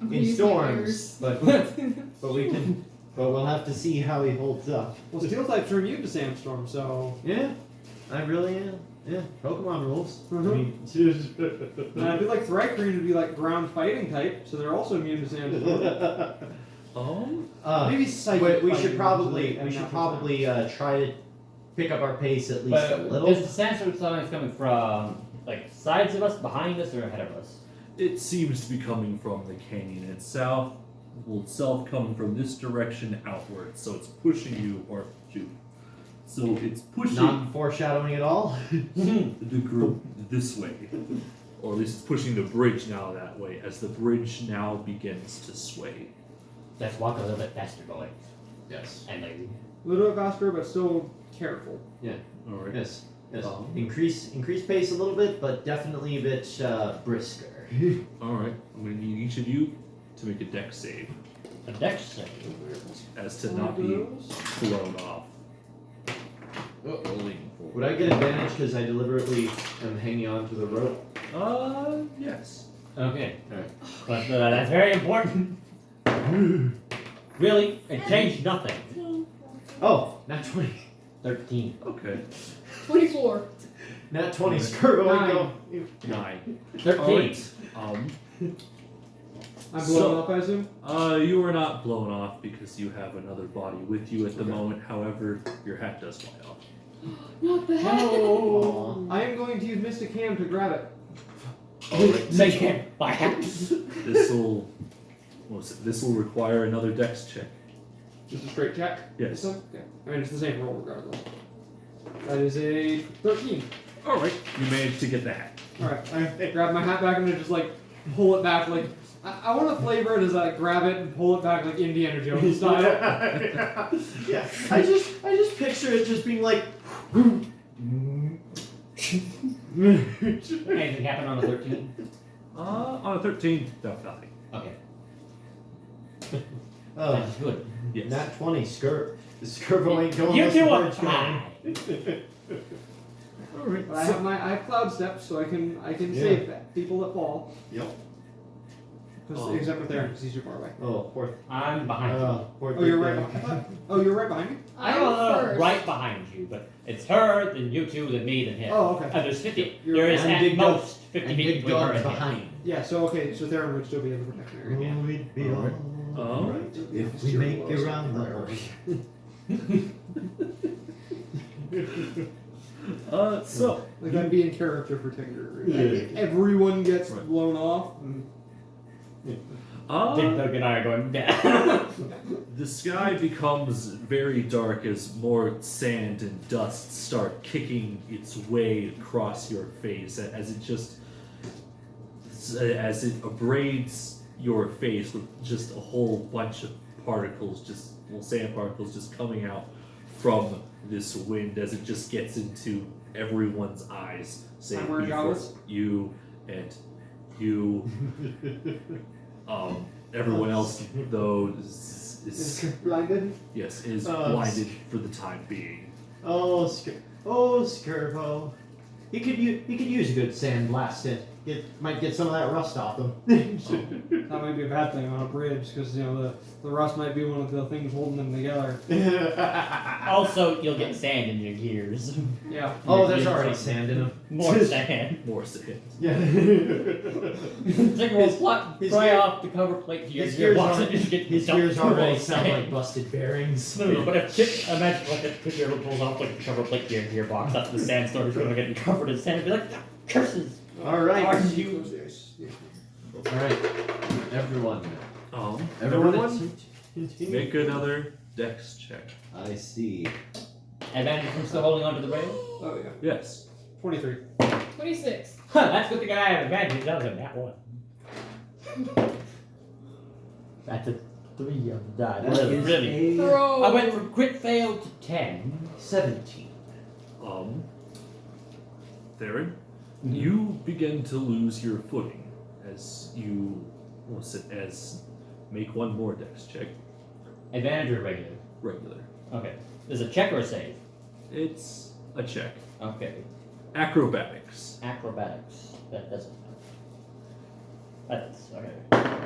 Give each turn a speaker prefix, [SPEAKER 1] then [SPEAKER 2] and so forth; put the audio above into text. [SPEAKER 1] in
[SPEAKER 2] Use my
[SPEAKER 1] storms,
[SPEAKER 2] ears.
[SPEAKER 1] but but we can, but we'll have to see how he holds up.
[SPEAKER 3] Well, steel types are immune to sandstorm, so
[SPEAKER 1] Yeah, I really am. Yeah, Pokemon rules.
[SPEAKER 3] Mhm.
[SPEAKER 1] I mean,
[SPEAKER 3] and I do like Thrycreen to be like ground fighting type, so they're also immune to sandstorm.
[SPEAKER 4] Oh?
[SPEAKER 5] Um,
[SPEAKER 1] uh,
[SPEAKER 3] Maybe
[SPEAKER 1] wait,
[SPEAKER 3] psychic.
[SPEAKER 1] we
[SPEAKER 3] fighting
[SPEAKER 1] should
[SPEAKER 3] is
[SPEAKER 1] probably
[SPEAKER 3] like
[SPEAKER 1] we should
[SPEAKER 3] 9%.
[SPEAKER 1] probably uh, try to pick up our pace at least
[SPEAKER 4] But
[SPEAKER 1] a
[SPEAKER 4] is
[SPEAKER 1] little.
[SPEAKER 4] the sandstorm sound coming from like sides of us, behind us, or ahead of us?
[SPEAKER 5] It seems to be coming from the canyon itself. Will itself come from this direction outward, so it's pushing you or you. So it's pushing
[SPEAKER 1] Not foreshadowing at all. Hmm.
[SPEAKER 5] the group this way, or at least it's pushing the bridge now that way. As the bridge now begins to sway,
[SPEAKER 4] Let's walk a little bit faster, boy.
[SPEAKER 1] Yes.
[SPEAKER 4] And like
[SPEAKER 1] uh,
[SPEAKER 3] A little bit faster, but still careful.
[SPEAKER 5] all right.
[SPEAKER 1] Yes. Yes.
[SPEAKER 5] Um,
[SPEAKER 1] increase increase pace a little bit, but definitely a bit uh, brisker.
[SPEAKER 5] All right. I'm gonna need each of you to make a deck save
[SPEAKER 4] a dex save.
[SPEAKER 5] as to not be blown off.
[SPEAKER 4] We're leaning
[SPEAKER 1] Would I get advantage because I deliberately am hanging on to the rope?
[SPEAKER 5] Uh, yes.
[SPEAKER 4] Okay.
[SPEAKER 1] Alright.
[SPEAKER 4] But uh, that's very important. Really? It changed nothing.
[SPEAKER 1] Oh, not twenty.
[SPEAKER 4] Thirteen.
[SPEAKER 5] Okay.
[SPEAKER 2] Twenty-four.
[SPEAKER 1] Not twenty. Screw it.
[SPEAKER 3] Nine.
[SPEAKER 1] Go.
[SPEAKER 5] Nine. All
[SPEAKER 4] Thirteen.
[SPEAKER 5] right. Um.
[SPEAKER 3] I'm blown
[SPEAKER 5] So-
[SPEAKER 3] up, I assume.
[SPEAKER 5] Uh, you are not blown off because you have another body with you at the moment. However, your hat does fly off.
[SPEAKER 2] Not the heck.
[SPEAKER 1] Aw.
[SPEAKER 3] I am going to use Mystic Ham to grab it.
[SPEAKER 4] Make it by half.
[SPEAKER 5] This will, what was it? This will require another dex check.
[SPEAKER 3] Just a straight check.
[SPEAKER 5] Yes.
[SPEAKER 3] So, okay. I mean, it's the same roll regardless. That is a 13.
[SPEAKER 5] All right, you managed to get the hat.
[SPEAKER 3] Alright, I grab my hat back and I just like pull it back. Like, I, I want to flavor it as I grab it and pull it back like Indiana Jones style.
[SPEAKER 1] yeah. I just I just picture it just being like
[SPEAKER 4] Anything happened on the thirteen?
[SPEAKER 5] Uh, on a thirteen, no, nothing.
[SPEAKER 4] Okay.
[SPEAKER 1] uh,
[SPEAKER 4] That's good.
[SPEAKER 5] Yes.
[SPEAKER 1] not twenty skirt. The skirbo ain't going.
[SPEAKER 4] You
[SPEAKER 1] unless the
[SPEAKER 4] two are
[SPEAKER 1] bird's going.
[SPEAKER 4] fine.
[SPEAKER 5] All right.
[SPEAKER 3] But I
[SPEAKER 5] so-
[SPEAKER 3] have my I have cloud steps, so I can I can
[SPEAKER 1] Yeah.
[SPEAKER 3] save that people that fall.
[SPEAKER 1] Yep.
[SPEAKER 3] 'Cause-
[SPEAKER 5] Oh.
[SPEAKER 3] Except for Theron, because he's too far away.
[SPEAKER 1] Oh, poor.
[SPEAKER 4] I'm behind
[SPEAKER 1] Uh, poor
[SPEAKER 3] Oh, you're
[SPEAKER 1] big
[SPEAKER 3] right.
[SPEAKER 1] thing.
[SPEAKER 3] Behind, I thought- oh, you're right behind me.
[SPEAKER 4] I
[SPEAKER 2] I'm
[SPEAKER 4] don't know,
[SPEAKER 2] first.
[SPEAKER 4] right behind you, but it's her, then you two, then me, then him.
[SPEAKER 3] Oh, okay.
[SPEAKER 4] Uh, there's 50,
[SPEAKER 3] You're-
[SPEAKER 4] there is
[SPEAKER 1] and
[SPEAKER 4] at
[SPEAKER 1] big dog-
[SPEAKER 4] most 50
[SPEAKER 1] And
[SPEAKER 4] feet
[SPEAKER 1] big
[SPEAKER 4] between her
[SPEAKER 1] dog
[SPEAKER 4] and him.
[SPEAKER 1] behind.
[SPEAKER 3] Yeah. So okay. So Theron would still be in the protection area.
[SPEAKER 4] Yeah.
[SPEAKER 1] Oh, it'd be
[SPEAKER 5] Alright.
[SPEAKER 4] Uh,
[SPEAKER 1] all
[SPEAKER 5] Um,
[SPEAKER 1] right
[SPEAKER 3] yeah,
[SPEAKER 1] if we
[SPEAKER 3] zero
[SPEAKER 1] make
[SPEAKER 3] loss.
[SPEAKER 1] it around the horn.
[SPEAKER 5] Uh, so
[SPEAKER 3] Like that'd be in character for Tinder.
[SPEAKER 1] Yeah.
[SPEAKER 3] If Everyone gets
[SPEAKER 5] Right.
[SPEAKER 3] blown off. and-
[SPEAKER 4] Big
[SPEAKER 5] uh,
[SPEAKER 4] dog and I are going down.
[SPEAKER 5] the sky becomes very dark as more sand and dust start kicking its way across your face a- as it just as it abrades your face with just a whole bunch of particles, just well, sand particles, just coming out from this wind as it just gets into everyone's eyes. Saying
[SPEAKER 3] wearing goggles?
[SPEAKER 5] you and you, um, everyone else though is,
[SPEAKER 3] Is
[SPEAKER 5] is
[SPEAKER 3] blinded.
[SPEAKER 5] yes is
[SPEAKER 1] Uh,
[SPEAKER 5] blinded for the time being.
[SPEAKER 1] Oh, Skir- oh, Skirbo. He could use he could use a good sandblast. It get, might get some of that rust off them.
[SPEAKER 3] That might be a bad thing on a bridge because you know the the rust might be one of the things holding them together.
[SPEAKER 4] also, you'll get sand in your gears.
[SPEAKER 3] Yeah.
[SPEAKER 1] oh, there's already sand in them.
[SPEAKER 4] More sand.
[SPEAKER 5] More sand.
[SPEAKER 1] Yeah.
[SPEAKER 4] Take a little flop,
[SPEAKER 1] his
[SPEAKER 4] fry
[SPEAKER 1] gear-
[SPEAKER 4] off the cover plate to your
[SPEAKER 1] his
[SPEAKER 4] gear
[SPEAKER 1] gears
[SPEAKER 4] box and
[SPEAKER 1] already-
[SPEAKER 4] just get
[SPEAKER 1] His
[SPEAKER 4] dumped
[SPEAKER 1] ears
[SPEAKER 4] full of
[SPEAKER 1] already sound
[SPEAKER 4] sand.
[SPEAKER 1] like busted bearings.
[SPEAKER 4] No, but if Chip, imagine like if Chip ever pulls off like a cover plate to your gearbox after the sandstorm is gonna get covered in sand and be like, "Ah, curses!
[SPEAKER 1] All right.
[SPEAKER 4] Are you
[SPEAKER 1] All right, everyone.
[SPEAKER 5] Um,
[SPEAKER 1] Everyone.
[SPEAKER 5] make another dex check.
[SPEAKER 1] I see.
[SPEAKER 4] And then I'm still holding onto the rail.
[SPEAKER 3] Oh yeah.
[SPEAKER 5] Yes.
[SPEAKER 3] Twenty-three.
[SPEAKER 2] Twenty-six.
[SPEAKER 4] Huh, that's what the guy had advantage. That was a nat one. That's a three on the die. Really, really.
[SPEAKER 1] Really?
[SPEAKER 2] Throw.
[SPEAKER 4] I went from crit fail to ten.
[SPEAKER 1] Seventeen.
[SPEAKER 5] Um, Theron,
[SPEAKER 1] Mm-hmm.
[SPEAKER 5] you begin to lose your footing as you, what's it, as make one more dex check,
[SPEAKER 4] Advantage or regular?
[SPEAKER 5] regular.
[SPEAKER 4] Okay. There's a check or a save.
[SPEAKER 5] It's a check.
[SPEAKER 4] Okay.
[SPEAKER 5] Acrobatics.
[SPEAKER 4] Acrobatics. That doesn't. That's okay.